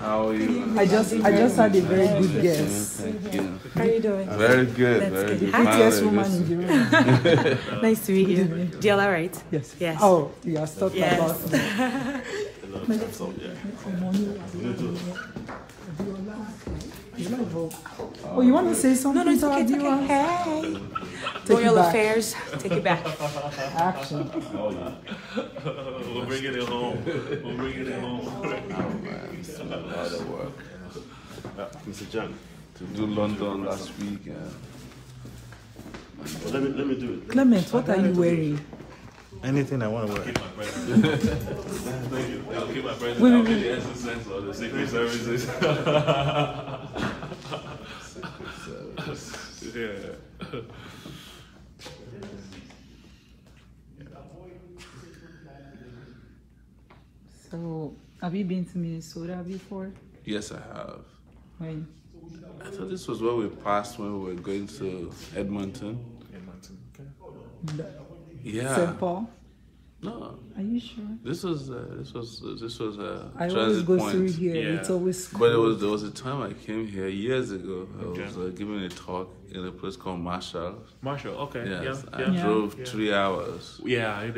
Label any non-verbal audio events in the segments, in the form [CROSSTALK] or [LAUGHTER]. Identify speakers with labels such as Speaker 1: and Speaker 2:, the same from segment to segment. Speaker 1: How are you?
Speaker 2: I just I just had a very good guess.
Speaker 1: Thank you.
Speaker 3: How are you doing?
Speaker 1: Very good.
Speaker 3: That's
Speaker 1: very
Speaker 3: good.
Speaker 1: good.
Speaker 2: BTS
Speaker 1: Finally,
Speaker 2: woman
Speaker 1: this-
Speaker 2: in the room.
Speaker 3: Nice to meet you. DL, all right?
Speaker 2: Yes.
Speaker 3: Yes.
Speaker 2: Oh, you are talking
Speaker 3: Yes.
Speaker 2: about Oh, you want to say
Speaker 3: No,
Speaker 2: something?
Speaker 3: no, it's
Speaker 2: to
Speaker 3: okay.
Speaker 2: our
Speaker 3: It's okay. Hey.
Speaker 2: viewers? Take it
Speaker 3: Royal
Speaker 2: back.
Speaker 3: affairs. Take it back.
Speaker 2: Action.
Speaker 4: We'll bring it home. We'll bring it home.
Speaker 1: A lot of work.
Speaker 4: Mr. Uh, John,
Speaker 1: To do London last week. Yeah.
Speaker 4: well, [LAUGHS] let me let me do it.
Speaker 2: Clement, what are you wearing?
Speaker 5: Anything I want to wear.
Speaker 4: Thank you. I'll keep my present.
Speaker 2: Wait,
Speaker 4: I'll
Speaker 2: wait,
Speaker 4: be the assistant or the secret [LAUGHS] services. yeah.
Speaker 2: So, have you been to Minnesota before?
Speaker 1: Yes, I have.
Speaker 2: When?
Speaker 1: I thought this was where we passed when we were going to Edmonton. Yeah.
Speaker 2: St. Paul?
Speaker 1: No,
Speaker 2: Are you sure?
Speaker 1: this was uh, this was uh, this was a
Speaker 2: I always
Speaker 1: transit
Speaker 2: go
Speaker 1: point.
Speaker 2: through here. It's always
Speaker 1: But it
Speaker 2: cool.
Speaker 1: was there was a time I came here years ago. I was uh, giving a talk in a place called Marshall.
Speaker 4: Marshall, okay.
Speaker 1: Yes,
Speaker 4: yeah.
Speaker 1: I
Speaker 4: Yeah.
Speaker 2: Yeah.
Speaker 1: drove
Speaker 4: Yeah.
Speaker 1: three hours.
Speaker 4: Yeah, [LAUGHS]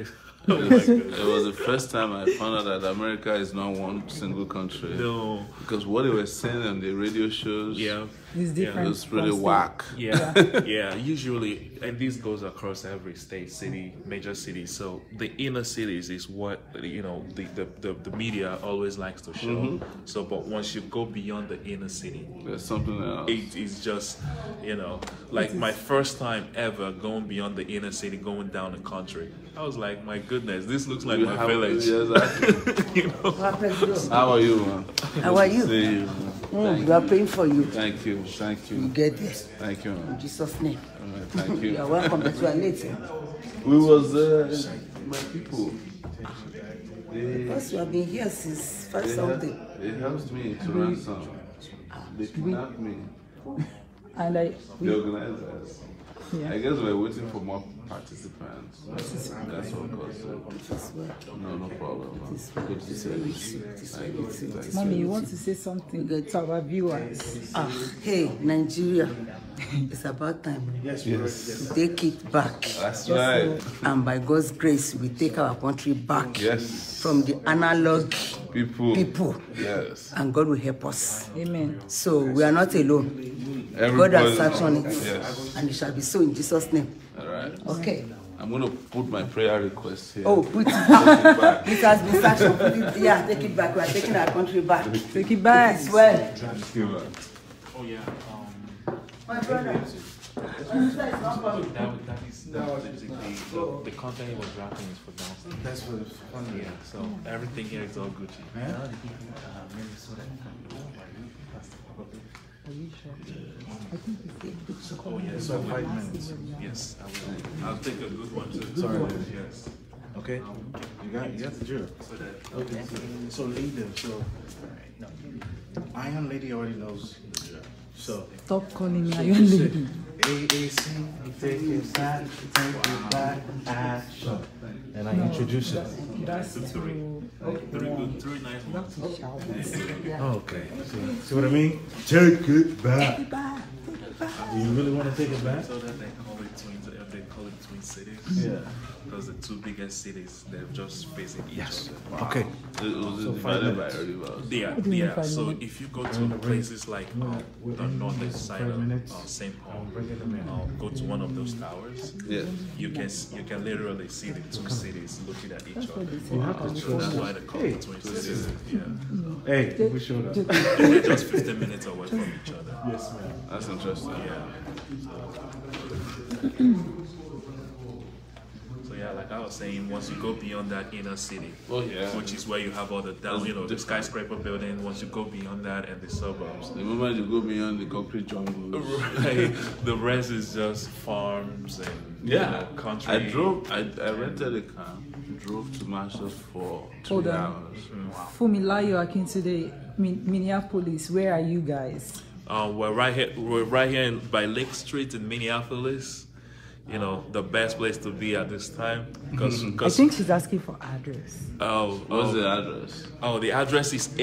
Speaker 4: Oh it is.
Speaker 1: It was the first time I found out that America is not one single country.
Speaker 4: no.
Speaker 1: Because what they were saying on the radio shows,
Speaker 4: Yeah.
Speaker 2: It's different.
Speaker 1: it was really
Speaker 2: from state.
Speaker 1: whack.
Speaker 4: Yeah, [LAUGHS] yeah. Usually, and this goes across every state, city, major city. So the inner cities is what you know the the, the, the media always likes to show. So, but once you go beyond the inner city,
Speaker 1: There's something else.
Speaker 4: it is just you know like my first time ever going beyond the inner city, going down the country. I was like, my goodness, this looks like
Speaker 1: You
Speaker 4: my
Speaker 1: have-
Speaker 4: village. [LAUGHS]
Speaker 1: yes, I-
Speaker 4: you know?
Speaker 1: How are you, man?
Speaker 6: How are
Speaker 1: Good to
Speaker 6: you?
Speaker 1: see you, man.
Speaker 6: Mm, we are praying for you.
Speaker 1: Thank you, thank you,
Speaker 6: You get this.
Speaker 1: thank you,
Speaker 6: In
Speaker 1: man.
Speaker 6: Jesus' name.
Speaker 1: All right, thank
Speaker 6: You are
Speaker 1: you.
Speaker 6: welcome, but you are late.
Speaker 2: eh?
Speaker 1: We was uh, my people. They,
Speaker 6: Because you have been here since five something.
Speaker 1: they helped me to ransom. They kidnapped me.
Speaker 2: And I,
Speaker 1: The
Speaker 2: we,
Speaker 1: organizers.
Speaker 2: yeah.
Speaker 1: I guess we're waiting for more participants. That's what caused it.
Speaker 6: This way,
Speaker 1: No, no problem. man.
Speaker 6: this way,
Speaker 1: Good to
Speaker 6: this
Speaker 1: see
Speaker 6: way
Speaker 1: you.
Speaker 6: with you, this way with you, this
Speaker 2: Mommy,
Speaker 6: way
Speaker 2: you
Speaker 6: with
Speaker 2: want to say something
Speaker 6: Good.
Speaker 2: to our viewers?
Speaker 6: you. Ah, hey, Nigeria, it's about time yes, to take it back.
Speaker 1: That's right.
Speaker 6: And by God's grace, we take our country back
Speaker 1: Yes.
Speaker 6: from the analog
Speaker 1: People.
Speaker 6: people,
Speaker 1: Yes.
Speaker 6: and God will help us.
Speaker 2: Amen.
Speaker 6: So we are not alone. God has sat on it,
Speaker 1: Yes.
Speaker 6: and it shall be so in Jesus' name.
Speaker 1: All right.
Speaker 6: Okay.
Speaker 1: I'm gonna put my prayer request here.
Speaker 6: Oh, put it
Speaker 1: Take
Speaker 6: back.
Speaker 1: it back.
Speaker 6: It has been sanctioned. Put it, yeah, take it back. We are taking our country back.
Speaker 2: Take it back.
Speaker 6: It's well.
Speaker 1: Thank you, man.
Speaker 4: Oh yeah. Um,
Speaker 6: My brother.
Speaker 4: That, that is that is the, the, the content he was wrapping is for downstairs. That's what it's Yeah, so everything here is all Gucci. Oh, yes, so five minutes. Yes, I will. I'll take a good one too. Sorry. Yes.
Speaker 5: Okay. You got, you got the drill. Okay. So lead them. So Iron Lady already knows the drill. So [LAUGHS]
Speaker 2: Stop calling me Iron Lady.
Speaker 5: AAC, take it back, take it back, action. And I introduce it.
Speaker 2: That's too.
Speaker 4: Three good, three nice ones.
Speaker 5: Okay. See, see what I mean? Take it back. Take it back. Do you really want to take it back?
Speaker 4: So that they call it twin, uh, they call it twin cities.
Speaker 5: Yeah.
Speaker 4: Because the two biggest cities, they're just facing each other.
Speaker 5: Okay.
Speaker 1: It was divided by rivers.
Speaker 4: Yeah,
Speaker 2: do you mean
Speaker 4: yeah.
Speaker 2: five
Speaker 4: So
Speaker 2: minutes?
Speaker 4: if you go to places like um, the northern side of uh, St. Paul, um, go to one of those towers,
Speaker 1: Yes.
Speaker 4: you can s- you can literally see the two cities looking at each other.
Speaker 5: You have to
Speaker 4: So that's
Speaker 5: trust
Speaker 4: why
Speaker 5: us.
Speaker 4: they call
Speaker 5: Hey,
Speaker 4: it twin cities. Yeah,
Speaker 5: hey, we showed up.
Speaker 4: they're just 15 minutes away from each other.
Speaker 5: Yes, ma'am.
Speaker 1: That's interesting.
Speaker 4: Yeah. So yeah, like I was saying, once you go beyond that inner city,
Speaker 1: Oh, yeah.
Speaker 4: which is where you have all the down, you know, the skyscraper building. Once you go beyond that and the suburbs, [LAUGHS]
Speaker 1: The moment you go beyond the concrete jungle.
Speaker 4: Right. the rest is just farms and you know, country.
Speaker 1: I drove. I, I rented a car. Drove to Marshall for two
Speaker 2: Hold on.
Speaker 1: hours.
Speaker 2: Fumilayo Akintunde, Min- Minneapolis, where are you guys?
Speaker 4: Um, we're right here. We're right here in, by Lake Street in Minneapolis. You know, the best place to be at this time because
Speaker 1: Mm-hmm.
Speaker 2: I think she's asking for address.
Speaker 4: oh,
Speaker 1: What's
Speaker 4: oh,
Speaker 1: the address?
Speaker 4: oh, the address is